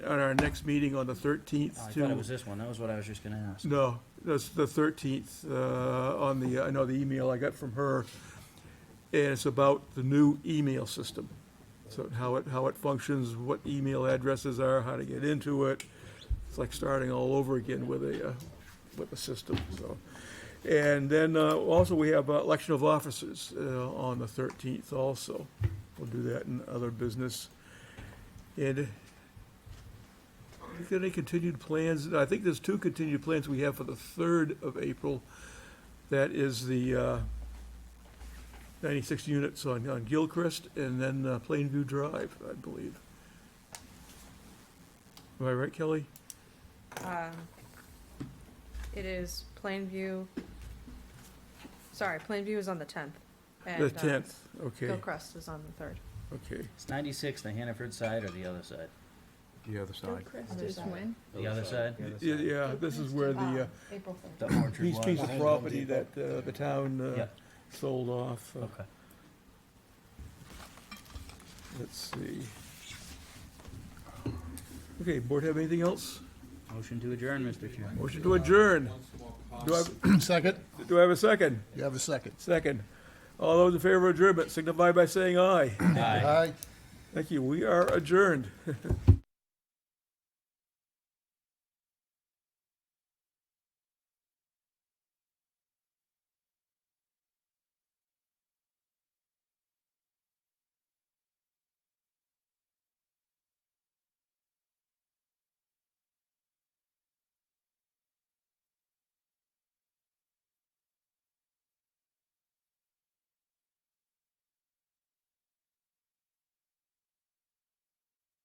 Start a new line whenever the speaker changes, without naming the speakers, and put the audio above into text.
at our next meeting on the thirteenth
Oh, I thought it
to,
was this one, that was what I was just gonna ask.
no, that's the thirteenth, uh, on the, I know the email I got from her. And it's about the new email system. So how it, how it functions, what email addresses are, how to get into it. It's like starting all over again with a, uh, with a system, so. And then, uh, also we have uh, election of officers, uh, on the thirteenth also. We'll do that in other business. And Is there any continued plans? I think there's two continued plans we have for the third of April. That is the uh, ninety-six units on, on Gilchrist and then uh, Plainview Drive, I believe. Am I right, Kelly?
Um, It is Plainview, sorry, Plainview is on the tenth.
The tenth, okay,
Gilchrist is on the third.
okay.
It's ninety-six, the Hannaford side or the other side?
The other side.
Is when?
The other side?
Y- Yeah, this is where the, uh,
April third.
The orchard
piece,
was?
piece of property that uh, the town uh,
Yeah,
sold off. uh,
okay.
Let's see. Okay, board have anything else?
Motion to adjourn, Mr. Chair.
Motion to adjourn. Do I, have-
Second?
do I have a second?
You have a second.
Second. All those in favor of adjournment signify by saying aye.
Aye.
Aye.
Thank you. We are adjourned.